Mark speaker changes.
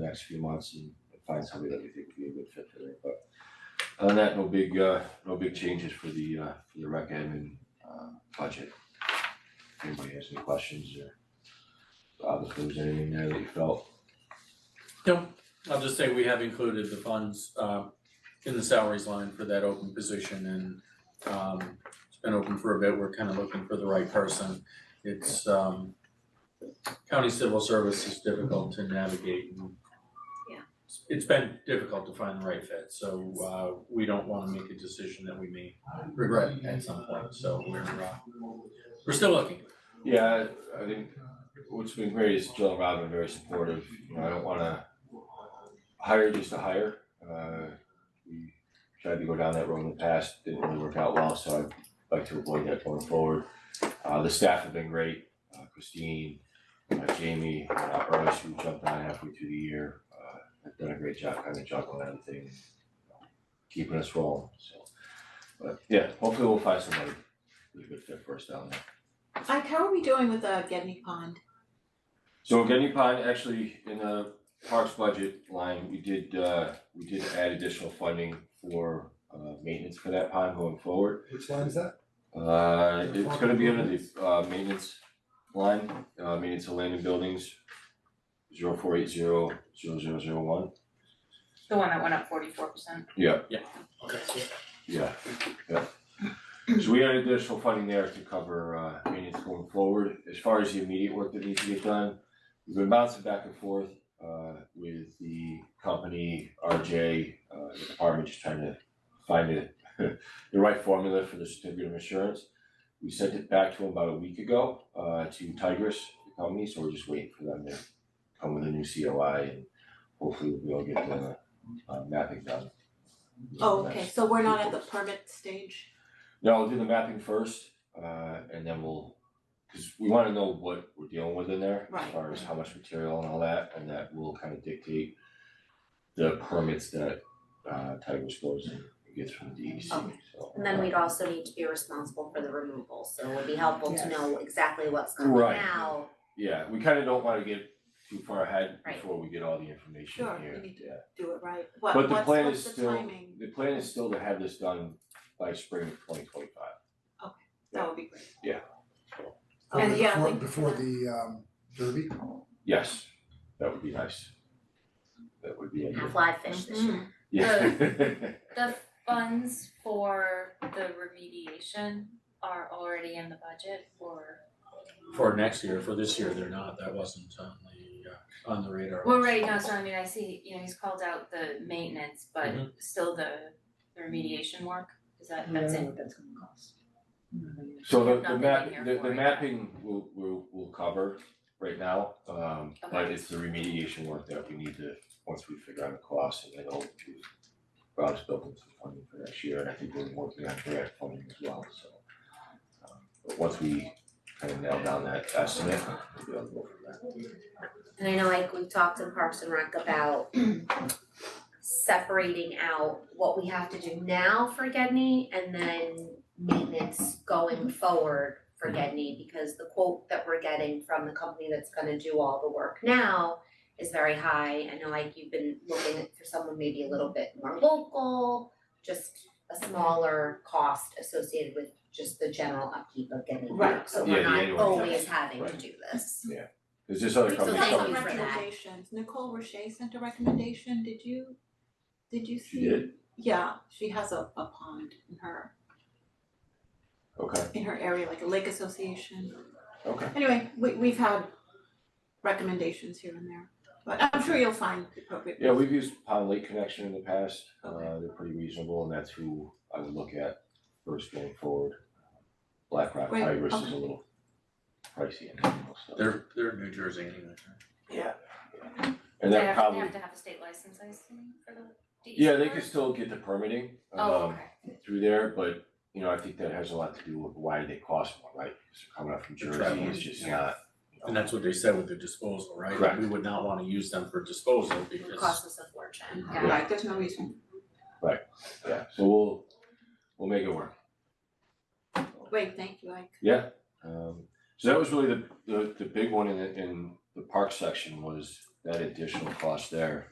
Speaker 1: next few months and find somebody that we think would be a good fit for it, but other than that, no big uh, no big changes for the uh, for the rec admin uh budget. If anybody has any questions or Bob, if there was anything there that you felt,
Speaker 2: I'll just say we have included the funds uh in the salaries line for that open position and um it's been open for a bit, we're kind of looking for the right person. It's um county civil service is difficult to navigate and
Speaker 3: Yeah.
Speaker 2: it's been difficult to find the right fit, so uh we don't wanna make a decision that we may regret at some point, so we're uh we're still looking.
Speaker 1: Yeah, I I think what's been great is Jill and Rob are very supportive, you know, I don't wanna hire just to hire, uh we tried to go down that road in the past, didn't really work out well, so I'd like to avoid that going forward. Uh the staff have been great, uh Christine, uh Jamie, uh Bryce, who jumped on halfway through the year, uh have done a great job kind of juggling everything, you know, keeping us rolling, so. But yeah, hopefully we'll find somebody who's a good fit for us down there.
Speaker 4: Ike, how are we doing with uh Getney Pond?
Speaker 1: So Getney Pond, actually, in the parks budget line, we did uh, we did add additional funding for uh maintenance for that pond going forward.
Speaker 5: Which line is that?
Speaker 1: Uh, it's gonna be under the uh maintenance line, uh maintenance of land and buildings, zero four eight zero zero zero zero one.
Speaker 6: The one that went up forty-four percent.
Speaker 1: Yeah,
Speaker 2: Okay.
Speaker 1: yeah, yeah. So we had additional funding there to cover uh maintenance going forward. As far as the immediate work that needs to get done, we've been bouncing back and forth uh with the company, RJ, uh the department, just trying to find it the right formula for the certificate of insurance. We sent it back to them about a week ago uh to Tigris, the company, so we're just waiting for them to come with a new COI and hopefully we'll be able to get the uh mapping done.
Speaker 4: Oh, okay, so we're not at the permit stage?
Speaker 1: No, I'll do the mapping first, uh, and then we'll, cause we wanna know what we're dealing with in there, as
Speaker 4: Right.
Speaker 1: far as how much material and all that, and that will kind of dictate the permits that, uh, Tigers goes and gets from the DEC, so.
Speaker 4: Okay.
Speaker 3: And then we'd also need to be responsible for the removal, so it would be helpful to
Speaker 6: Yes.
Speaker 3: know exactly what's coming
Speaker 1: Right.
Speaker 3: out.
Speaker 1: Yeah, we kinda don't wanna get too far ahead
Speaker 3: Right.
Speaker 1: before we get all the information
Speaker 4: Sure,
Speaker 1: here,
Speaker 4: we need to-
Speaker 1: yeah.
Speaker 4: Do it right?
Speaker 1: But
Speaker 4: What
Speaker 1: the
Speaker 4: what's
Speaker 1: plan
Speaker 4: what's
Speaker 1: is
Speaker 4: the
Speaker 1: still-
Speaker 4: timing?
Speaker 1: The plan is still to have this done by spring of twenty twenty five.
Speaker 4: That would be great.
Speaker 5: Before-
Speaker 4: And yeah,
Speaker 5: Before,
Speaker 4: like-
Speaker 5: Oh, before the um derby?
Speaker 1: Yes, that would be nice. That would be ideal.
Speaker 3: Have live fish this year.
Speaker 4: Uh,
Speaker 1: Yeah.
Speaker 6: The funds for the remediation are already in the budget for.
Speaker 2: For next year, for this year, they're not, that wasn't on the uh on the radar.
Speaker 6: Well, right now, so I mean, I see, you know, he's called out the maintenance, but
Speaker 1: Mm-hmm.
Speaker 2: Mhm.
Speaker 6: still the the remediation work, is that, that's in?
Speaker 7: that's gonna cost.
Speaker 1: So the
Speaker 6: Nothing
Speaker 1: the
Speaker 6: in
Speaker 1: map,
Speaker 6: here
Speaker 1: the
Speaker 6: for
Speaker 1: the
Speaker 6: it.
Speaker 1: mapping will will will cover right now, um but
Speaker 6: Okay.
Speaker 1: it's the remediation work that we need to, once we figure out the cost and then I'll do. Rob's building some funding for next year and I think we're working on direct funding as well, so. um, But once we kind of nail down that estimate, we'll be able to go from there.
Speaker 3: And I know like we've talked in Parks and Rec about separating out what we have to do now for Gedney and then maintenance going forward for Gedney because the quote that we're getting from the company that's gonna do all the work now is very high. I know like you've been looking for someone maybe a little bit more local, just a smaller cost associated with just the general upkeep of Gedney Park. So
Speaker 1: Yeah,
Speaker 3: we're
Speaker 1: the
Speaker 3: not
Speaker 1: annual
Speaker 3: always having to
Speaker 1: Right.
Speaker 3: do this.
Speaker 1: There's this other
Speaker 3: So
Speaker 1: company,
Speaker 3: thank
Speaker 1: something
Speaker 3: you for that.
Speaker 4: recommendations. Nicole Roche sent a recommendation, did you, did you see?
Speaker 1: she did,
Speaker 4: Yeah, she has a a pond in her,
Speaker 1: okay,
Speaker 4: in her area, like a lake association.
Speaker 1: okay.
Speaker 4: Anyway, we we've had recommendations here and there, but I'm sure you'll find the appropriate.
Speaker 1: Yeah, we've used Pond Lake Connection in the past, uh,
Speaker 4: Okay.
Speaker 1: they're pretty reasonable, and that's who I would look at first going forward. Black Rock
Speaker 4: Great,
Speaker 1: Tigers is
Speaker 4: okay.
Speaker 1: a little pricey and everything, so-
Speaker 2: They're they're New Jersey anyway.
Speaker 1: and
Speaker 6: They
Speaker 1: that
Speaker 6: have- They
Speaker 1: probably,
Speaker 6: have to have a state license, I assume, for the DEC
Speaker 1: yeah, they
Speaker 6: work?
Speaker 1: could still get the permitting,
Speaker 6: Oh,
Speaker 1: um,
Speaker 6: okay,
Speaker 1: through there, but, you know, I think that has a lot to do with why they cost more, right? 'Cause coming up from
Speaker 2: The
Speaker 1: Jersey,
Speaker 2: traveling,
Speaker 1: it's just
Speaker 6: yeah.
Speaker 1: not. you know,
Speaker 2: And that's what they said with the disposal, right?
Speaker 1: Oh. Correct.
Speaker 2: We would not wanna use them for disposal
Speaker 3: It would
Speaker 2: because
Speaker 3: cost us a fortune.
Speaker 6: got it.
Speaker 4: Right, there's no reason.
Speaker 1: Yeah, so we'll, we'll make it work.
Speaker 4: Great, thank you, Ike.
Speaker 1: Yeah, um, so that was really the, the, the big one in, the- in the park section was that additional cost there